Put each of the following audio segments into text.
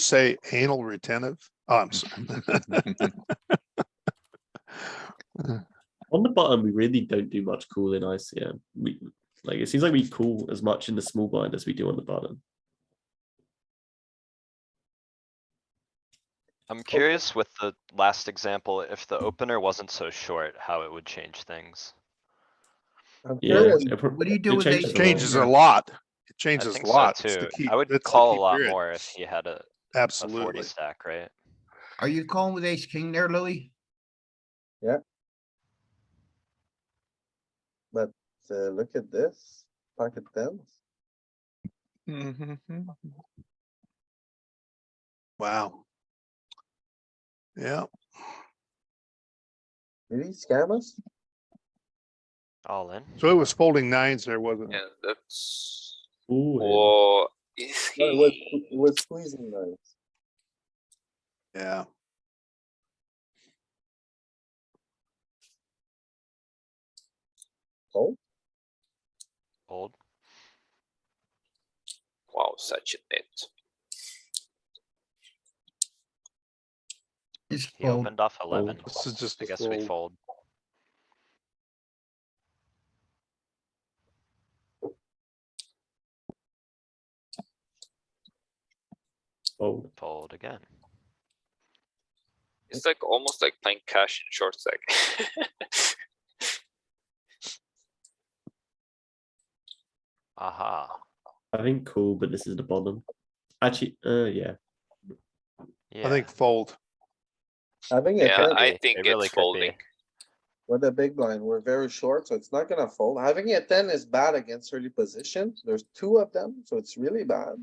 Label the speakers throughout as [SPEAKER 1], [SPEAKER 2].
[SPEAKER 1] say anal retentive? Oh, I'm sorry.
[SPEAKER 2] On the bottom, we really don't do much cool in ICM. We like it seems like we cool as much in the small blind as we do on the bottom.
[SPEAKER 1] Oh,
[SPEAKER 3] I'm curious with the last example, if the opener wasn't so short, how it would change things.
[SPEAKER 4] I'm
[SPEAKER 2] Yeah,
[SPEAKER 4] curious,
[SPEAKER 2] it pro-
[SPEAKER 4] What do you
[SPEAKER 2] it
[SPEAKER 4] do with ace?
[SPEAKER 2] changes a
[SPEAKER 1] It
[SPEAKER 2] lot.
[SPEAKER 1] Changes a lot. It changes
[SPEAKER 3] I think
[SPEAKER 1] a
[SPEAKER 3] so
[SPEAKER 1] lot. It's
[SPEAKER 3] too.
[SPEAKER 1] the key-
[SPEAKER 3] I would
[SPEAKER 1] that's the
[SPEAKER 3] call
[SPEAKER 1] key
[SPEAKER 3] a lot
[SPEAKER 1] period.
[SPEAKER 3] more if he had a, a forty
[SPEAKER 1] Absolutely.
[SPEAKER 3] stack, right?
[SPEAKER 4] Are you calling with ace king there, Louis?
[SPEAKER 5] So look at this, pocket tens.
[SPEAKER 1] Wow. Yeah,
[SPEAKER 5] Did he scam us?
[SPEAKER 3] All in.
[SPEAKER 1] so it was folding nines there, wasn't it?
[SPEAKER 6] Yeah, that's.
[SPEAKER 2] Ooh, and-
[SPEAKER 6] Or is
[SPEAKER 5] No, it was,
[SPEAKER 6] he?
[SPEAKER 5] it was squeezing those.
[SPEAKER 1] Yeah.
[SPEAKER 3] Old.
[SPEAKER 6] Wow, such a net.
[SPEAKER 4] It's
[SPEAKER 3] He
[SPEAKER 4] fold.
[SPEAKER 3] opened off eleven.
[SPEAKER 1] This is just
[SPEAKER 3] I
[SPEAKER 1] a
[SPEAKER 3] guess we
[SPEAKER 1] fold.
[SPEAKER 3] fold.
[SPEAKER 2] oh,
[SPEAKER 3] Fold again.
[SPEAKER 6] It's like almost like playing cash in short stack.
[SPEAKER 3] Aha.
[SPEAKER 2] I think cool, but this is the bottom. Actually, uh, yeah,
[SPEAKER 3] Yeah.
[SPEAKER 1] I think fold.
[SPEAKER 5] Having a
[SPEAKER 6] yeah,
[SPEAKER 5] ten,
[SPEAKER 3] It
[SPEAKER 6] I think
[SPEAKER 3] really
[SPEAKER 6] it's
[SPEAKER 3] could be.
[SPEAKER 6] folding.
[SPEAKER 5] with a big blind, we're very short, so it's not gonna fold. Having a ten is bad against early position. There's two of them, so it's really bad.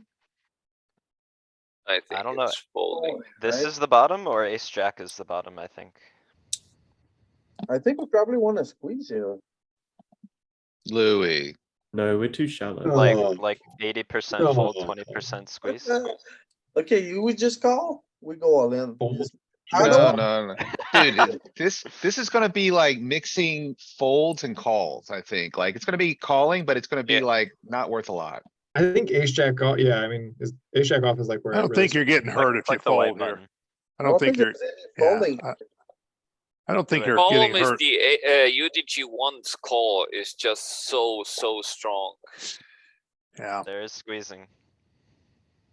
[SPEAKER 6] I think
[SPEAKER 3] don't know.
[SPEAKER 6] it's folding.
[SPEAKER 3] This
[SPEAKER 5] right?
[SPEAKER 3] is the bottom or ace jack is the bottom, I think.
[SPEAKER 5] I think we probably wanna squeeze here.
[SPEAKER 7] Louis,
[SPEAKER 2] no, we're too shallow.
[SPEAKER 3] Like,
[SPEAKER 1] Oh.
[SPEAKER 3] like eighty percent fold, twenty percent squeeze.
[SPEAKER 5] Okay, you would just call, we go all in. I
[SPEAKER 7] no,
[SPEAKER 5] don't-
[SPEAKER 7] no, no. Dude, it- this, this is gonna be like mixing folds and calls, I think. Like, it's gonna be calling, but it's gonna be
[SPEAKER 6] Yeah.
[SPEAKER 7] like not worth a lot.
[SPEAKER 8] I think ace jack off, yeah, I mean, is ace jack off is like where.
[SPEAKER 1] I
[SPEAKER 8] it
[SPEAKER 1] don't
[SPEAKER 8] really
[SPEAKER 1] think you're getting
[SPEAKER 3] Like-
[SPEAKER 1] hurt if Oh, you
[SPEAKER 3] like the white
[SPEAKER 1] fold here.
[SPEAKER 3] button.
[SPEAKER 1] I don't think you're,
[SPEAKER 5] there's any
[SPEAKER 1] yeah,
[SPEAKER 5] Folding,
[SPEAKER 1] I- I don't think
[SPEAKER 3] Right.
[SPEAKER 1] you're
[SPEAKER 6] Problem
[SPEAKER 1] getting
[SPEAKER 6] is
[SPEAKER 1] hurt.
[SPEAKER 6] the A- uh, UDG one call is just so so strong.
[SPEAKER 1] Yeah,
[SPEAKER 3] There is squeezing.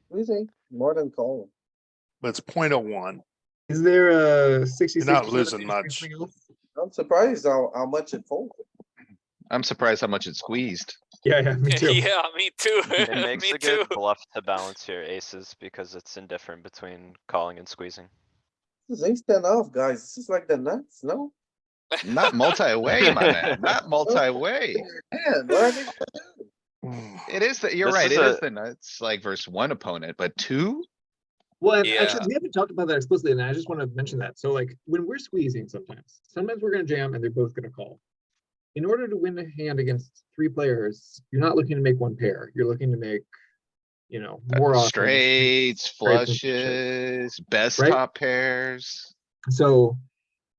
[SPEAKER 5] squeezing, more than calling.
[SPEAKER 1] but it's point oh one.
[SPEAKER 8] Is there a sixty?
[SPEAKER 1] You're not losing much.
[SPEAKER 5] I'm surprised how, how much it folded.
[SPEAKER 7] I'm surprised how much it squeezed.
[SPEAKER 8] Yeah, yeah, me too.
[SPEAKER 6] yeah, me too.
[SPEAKER 3] It makes
[SPEAKER 6] me
[SPEAKER 3] a
[SPEAKER 6] too.
[SPEAKER 3] good bluff to balance your aces because it's indifferent between calling and squeezing.
[SPEAKER 5] This is ace ten off, guys. This is like the nuts, no?
[SPEAKER 7] Not multi-way, my man, not multi-way.
[SPEAKER 5] Man, what are they-
[SPEAKER 7] It is that, you're
[SPEAKER 3] This
[SPEAKER 7] right,
[SPEAKER 3] is
[SPEAKER 7] it is
[SPEAKER 3] a-
[SPEAKER 7] the nuts, like versus one opponent, but two?
[SPEAKER 8] Well, and
[SPEAKER 6] Yeah.
[SPEAKER 8] actually, we haven't talked about that explicitly, and I just wanna mention that. So like, when we're squeezing sometimes, sometimes we're gonna jam and they're both gonna call. In order to win a hand against three players, you're not looking to make one pair, you're looking to make, you know, more often.
[SPEAKER 7] Straights,
[SPEAKER 8] and flushes.
[SPEAKER 7] flushes, best
[SPEAKER 8] Right?
[SPEAKER 7] top pairs.
[SPEAKER 8] So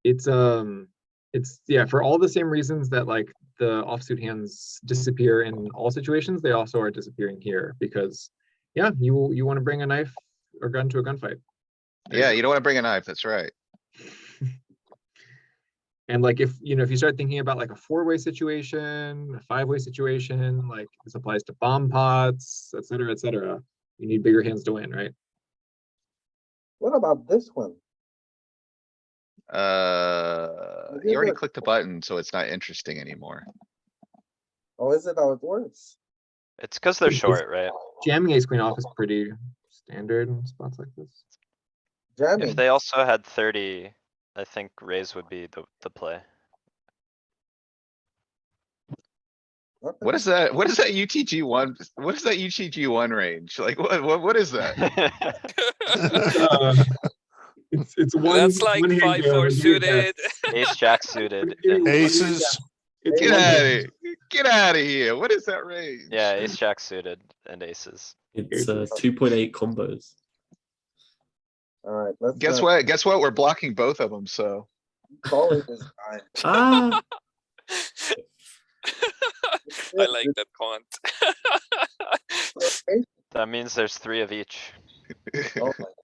[SPEAKER 8] it's um it's yeah, for all the same reasons that like the offsuit hands disappear in all situations, they also are disappearing here because yeah, you you want to bring a knife or gun to a gunfight. There you
[SPEAKER 7] Yeah,
[SPEAKER 8] go.
[SPEAKER 7] you don't wanna bring a knife, that's right.
[SPEAKER 8] And like if you know if you start thinking about like a four-way situation, a five-way situation, like this applies to bomb pots, et cetera, et cetera. You need bigger hands to win, right?
[SPEAKER 5] What about this one?
[SPEAKER 7] Uh,
[SPEAKER 5] did
[SPEAKER 7] you already
[SPEAKER 5] look.
[SPEAKER 7] clicked the button, so it's not interesting anymore.
[SPEAKER 5] Oh, is it how it works?
[SPEAKER 3] It's because they're
[SPEAKER 8] Is-
[SPEAKER 3] short, right?
[SPEAKER 8] Jamming ace queen off is pretty standard in spots like this.
[SPEAKER 5] Jamming,
[SPEAKER 3] If they also had thirty, I think raise would be the, the play.
[SPEAKER 5] okay.
[SPEAKER 7] What is that? What is that UTG one? What is that UTG one range? Like, what, what, what is that?
[SPEAKER 8] Uh, It's, it's one.
[SPEAKER 6] That's like
[SPEAKER 8] one hand
[SPEAKER 6] five
[SPEAKER 1] uh,
[SPEAKER 8] jam,
[SPEAKER 6] four
[SPEAKER 8] you do that.
[SPEAKER 6] suited.
[SPEAKER 3] Ace jack suited.
[SPEAKER 8] You're
[SPEAKER 3] and-
[SPEAKER 8] doing
[SPEAKER 1] Aces,
[SPEAKER 8] It's
[SPEAKER 7] Get
[SPEAKER 8] one
[SPEAKER 7] out of
[SPEAKER 8] hand.
[SPEAKER 7] here. Get out of here. What is that range?
[SPEAKER 3] Yeah, ace jack suited and aces.
[SPEAKER 2] It's uh, two point eight combos.
[SPEAKER 5] Alright, let's.
[SPEAKER 7] Guess
[SPEAKER 5] not
[SPEAKER 7] what? Guess what? We're blocking both of them, so.
[SPEAKER 5] keep Calling this guy.
[SPEAKER 2] Ah,
[SPEAKER 6] I like that comment.
[SPEAKER 5] Okay,
[SPEAKER 3] That means there's three of each.
[SPEAKER 7] Oh my